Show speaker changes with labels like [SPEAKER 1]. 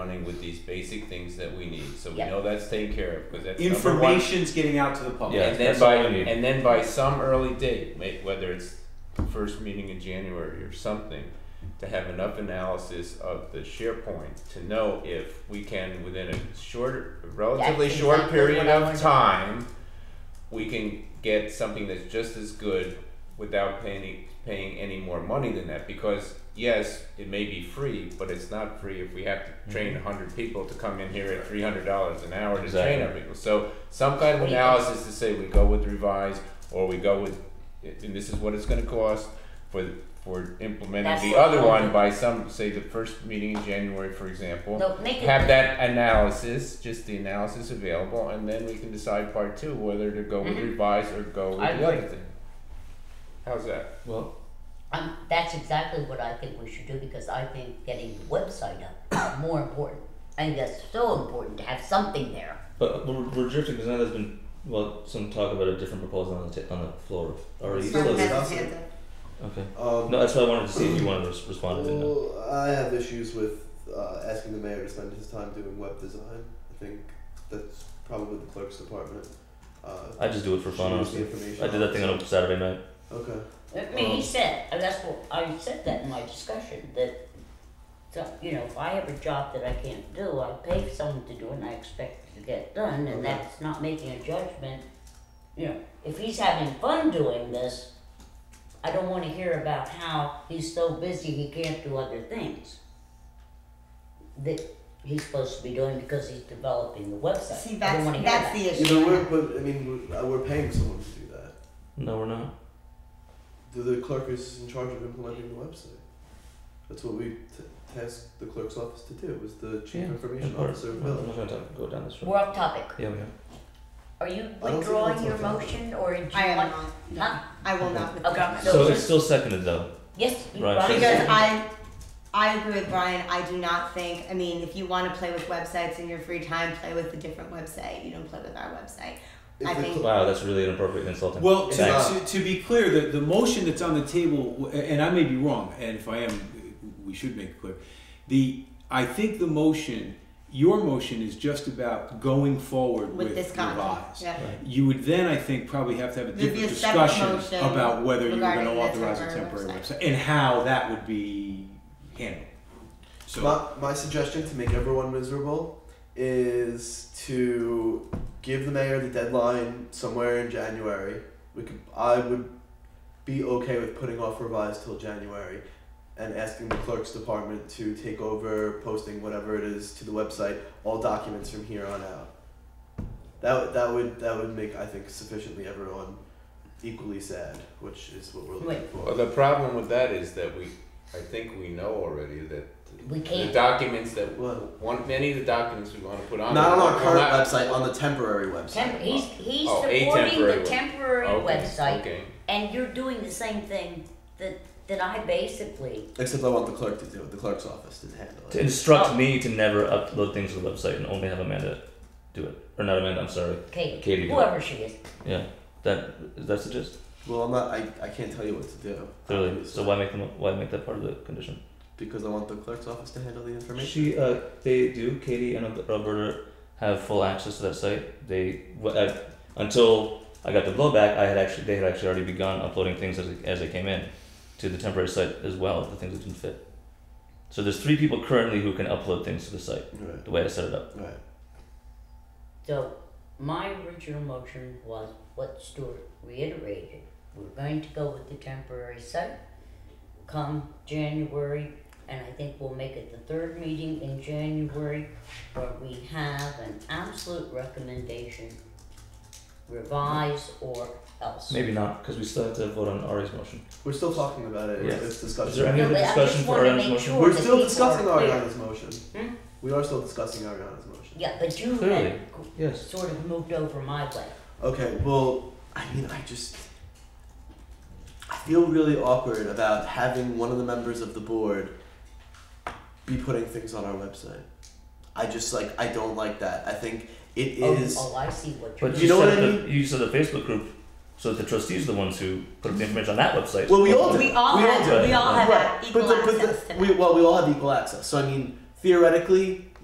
[SPEAKER 1] starting with these basic things that we need. So we
[SPEAKER 2] Yeah.
[SPEAKER 1] know that's taken care of because that's number one.
[SPEAKER 3] Information's getting out to the public.
[SPEAKER 1] Yeah, and
[SPEAKER 3] that's
[SPEAKER 1] then by
[SPEAKER 3] all we need.
[SPEAKER 1] and then by some early date, ma- whether it's the first meeting in January or something, to have enough analysis of the SharePoint to know if we can, within a short, relatively
[SPEAKER 2] That's
[SPEAKER 1] short
[SPEAKER 2] exactly
[SPEAKER 1] period
[SPEAKER 2] what I
[SPEAKER 1] of
[SPEAKER 2] wanted.
[SPEAKER 1] time, we can get something that's just as good without paying paying any more money than that because yes it may be free but it's not free if we have to train 100 people to come in here at $300 an hour to
[SPEAKER 4] Exactly.
[SPEAKER 1] train our people so some kind of
[SPEAKER 2] What do you
[SPEAKER 1] analysis to say we go with revised or we go with and this is what it's going to cost for for implementing
[SPEAKER 2] That's
[SPEAKER 1] the
[SPEAKER 2] what
[SPEAKER 1] other
[SPEAKER 2] we'll
[SPEAKER 1] one
[SPEAKER 2] do.
[SPEAKER 1] by some say the first meeting in January for example
[SPEAKER 2] No, make it
[SPEAKER 1] have that analysis, just the analysis available, and then we can decide part two whether to go with
[SPEAKER 2] Mhm.
[SPEAKER 1] revise or go with
[SPEAKER 3] I
[SPEAKER 1] the other
[SPEAKER 3] agree.
[SPEAKER 1] thing. How's that?
[SPEAKER 3] well,
[SPEAKER 2] Um, that's exactly what I think we should do because I think getting the website up is more important. I think that's so important to have something there.
[SPEAKER 4] But we're, we're drifting because now there's been well some talk about a different proposal on the t- on the floor. Or you
[SPEAKER 5] Someone
[SPEAKER 4] still
[SPEAKER 5] has
[SPEAKER 4] okay?
[SPEAKER 5] his hand up.
[SPEAKER 6] Um,
[SPEAKER 4] No, that's why I wanted to see if you wanted to res- respond to that.
[SPEAKER 6] well, I have issues with uh, asking the mayor to spend his time doing web design. I think that's probably the clerk's department. Uh,
[SPEAKER 4] I just do it for fun.
[SPEAKER 6] she needs
[SPEAKER 4] Honestly.
[SPEAKER 6] the information
[SPEAKER 4] I did that thing on a Saturday night.
[SPEAKER 6] Okay.
[SPEAKER 2] I mean, he said, and that's what I said that in my discussion that, so, you know, if I have a job that I can't do, I pay someone to do it and I expect it to get done, and that's not making a judgment. You know, if he's having fun doing this, I don't want to hear about how he's so busy he can't do other things that he's supposed to be doing because he's developing the website.
[SPEAKER 5] See,
[SPEAKER 2] I don't want
[SPEAKER 5] that's,
[SPEAKER 2] to hear
[SPEAKER 5] that's
[SPEAKER 2] that.
[SPEAKER 5] the
[SPEAKER 6] You know, we're,
[SPEAKER 5] issue.
[SPEAKER 6] but I mean, we're, uh, we're paying someone to do that.
[SPEAKER 4] No, we're not.
[SPEAKER 6] The, the clerk is in charge of implementing the website. That's what we t- tasked the clerk's office to do. Was the chief
[SPEAKER 4] Yeah,
[SPEAKER 6] information
[SPEAKER 4] of course.
[SPEAKER 6] officer of
[SPEAKER 4] Well, I'm
[SPEAKER 6] Bill?
[SPEAKER 4] not going to talk, go down this road.
[SPEAKER 2] We're off topic.
[SPEAKER 4] Yeah, we are.
[SPEAKER 2] Are you
[SPEAKER 6] think
[SPEAKER 2] withdrawing
[SPEAKER 6] that's
[SPEAKER 2] your
[SPEAKER 6] off topic.
[SPEAKER 2] motion or do you
[SPEAKER 5] I am
[SPEAKER 2] want?
[SPEAKER 5] not.
[SPEAKER 2] Huh?
[SPEAKER 5] I will not
[SPEAKER 2] Okay.
[SPEAKER 5] withdraw.
[SPEAKER 2] So
[SPEAKER 4] So
[SPEAKER 2] just-
[SPEAKER 4] it's still seconded though.
[SPEAKER 2] Yes, you
[SPEAKER 4] Right.
[SPEAKER 2] brought it
[SPEAKER 5] Because
[SPEAKER 2] up.
[SPEAKER 5] I, I agree with Brian. I do not think. I mean, if you want to play with websites in your free time, play with a different website. You don't play with our website.
[SPEAKER 6] If
[SPEAKER 5] I
[SPEAKER 6] the
[SPEAKER 5] think-
[SPEAKER 6] cl-
[SPEAKER 4] Wow, that's really inappropriate and insulting.
[SPEAKER 3] well to,
[SPEAKER 4] Thanks.
[SPEAKER 6] Exactly.
[SPEAKER 3] to, to be clear, the, the motion that's on the table, and I may be wrong, and if I am, we should make it clear. The I think the motion, your motion, is just about going forward
[SPEAKER 5] With,
[SPEAKER 3] with,
[SPEAKER 5] this content,
[SPEAKER 3] revise.
[SPEAKER 5] yeah.
[SPEAKER 3] You would then, I think, probably have to have a
[SPEAKER 5] There'd be
[SPEAKER 3] different
[SPEAKER 5] a separate
[SPEAKER 3] discussion
[SPEAKER 5] motion
[SPEAKER 3] about whether you were going to
[SPEAKER 5] regarding the
[SPEAKER 3] authorize a
[SPEAKER 5] temporary
[SPEAKER 3] temporary
[SPEAKER 5] website.
[SPEAKER 3] website and how that would be handled. So
[SPEAKER 6] my, my suggestion to make everyone miserable is to give the mayor the deadline somewhere in January. We could I would be okay with putting off revise till January and asking the clerk's department to take over posting whatever it is to the website, all documents from here on out. That would that would that would make I think sufficiently everyone equally sad, which is what we're looking
[SPEAKER 2] Wait.
[SPEAKER 6] for.
[SPEAKER 1] Well, the problem with that is that we, I think we know already that the
[SPEAKER 2] We can't.
[SPEAKER 1] documents that
[SPEAKER 6] Well,
[SPEAKER 1] one, many of the documents we want to put on
[SPEAKER 6] not on
[SPEAKER 1] there
[SPEAKER 6] our
[SPEAKER 1] will
[SPEAKER 6] current
[SPEAKER 1] not-
[SPEAKER 6] website, on the temporary website.
[SPEAKER 2] Temp- he's he's
[SPEAKER 1] Oh, a
[SPEAKER 2] supporting
[SPEAKER 1] temporary
[SPEAKER 2] the
[SPEAKER 1] web-
[SPEAKER 2] temporary
[SPEAKER 1] Okay,
[SPEAKER 2] website,
[SPEAKER 1] Okay.
[SPEAKER 2] and you're doing the same thing that that I basically.
[SPEAKER 6] Except I want the clerk to do it. The clerk's office to handle
[SPEAKER 4] To
[SPEAKER 6] it.
[SPEAKER 4] instruct me to never upload things to the website and only have Amanda do it. Or not Amanda, I'm sorry.
[SPEAKER 2] Katie,
[SPEAKER 4] Katie did.
[SPEAKER 2] whoever she is,
[SPEAKER 4] Yeah. That is that the gist?
[SPEAKER 6] Well, I'm not. I, I can't tell you what to do.
[SPEAKER 4] Clearly.
[SPEAKER 6] obviously,
[SPEAKER 4] So why make them why make that part of the condition?
[SPEAKER 6] Because I want the clerk's office to handle the information.
[SPEAKER 4] She, uh, they do. Katie and Roberta have full access to that site. They wh- I, until I got the blowback, I had actually they had actually already begun uploading things as as they came in to the temporary site as well. The things that didn't fit. So there's three people currently who can upload things to the site.
[SPEAKER 6] Right.
[SPEAKER 4] The way I set it up.
[SPEAKER 6] Right.
[SPEAKER 2] so my original motion was what Stuart reiterated. We're going to go with the temporary site. Come January, and I think we'll make it the third meeting in January, where we have an absolute recommendation, revise or else.
[SPEAKER 4] Maybe not because we still have to vote on Ari's motion.
[SPEAKER 6] We're still talking about it. It's,
[SPEAKER 4] Yeah.
[SPEAKER 6] it's
[SPEAKER 4] Is there any other
[SPEAKER 6] discussion.
[SPEAKER 2] No, but I
[SPEAKER 4] discussion
[SPEAKER 2] just
[SPEAKER 4] for
[SPEAKER 2] wanna
[SPEAKER 4] Ari's
[SPEAKER 2] make
[SPEAKER 4] motion?
[SPEAKER 2] sure-
[SPEAKER 6] We're
[SPEAKER 2] that
[SPEAKER 6] still
[SPEAKER 2] people
[SPEAKER 6] discussing
[SPEAKER 2] are clear.
[SPEAKER 6] Ariana's motion.
[SPEAKER 2] Hmm?
[SPEAKER 6] We are still discussing Ariana's motion.
[SPEAKER 2] Yeah, but you
[SPEAKER 4] Clearly.
[SPEAKER 2] had
[SPEAKER 4] Yes.
[SPEAKER 2] sort of moved over my way.
[SPEAKER 6] Okay. Well, I mean, I just I feel really awkward about having one of the members of the board be putting things on our website. I just like I don't like that. I think it
[SPEAKER 2] Oh,
[SPEAKER 6] is.
[SPEAKER 2] oh, I see what you're
[SPEAKER 4] But
[SPEAKER 6] You
[SPEAKER 4] you,
[SPEAKER 6] know
[SPEAKER 4] set
[SPEAKER 6] what I
[SPEAKER 4] the, you set the Facebook group so that the trustees are the ones who put up the information on that website.
[SPEAKER 6] Well, we all do.
[SPEAKER 5] We all
[SPEAKER 6] We all
[SPEAKER 5] have.
[SPEAKER 4] do.
[SPEAKER 5] We all have
[SPEAKER 6] Right.
[SPEAKER 5] equal
[SPEAKER 6] but the, but
[SPEAKER 5] access
[SPEAKER 6] the,
[SPEAKER 5] to
[SPEAKER 6] we,
[SPEAKER 5] that.
[SPEAKER 6] well, we all have equal access. So I mean, theoretically,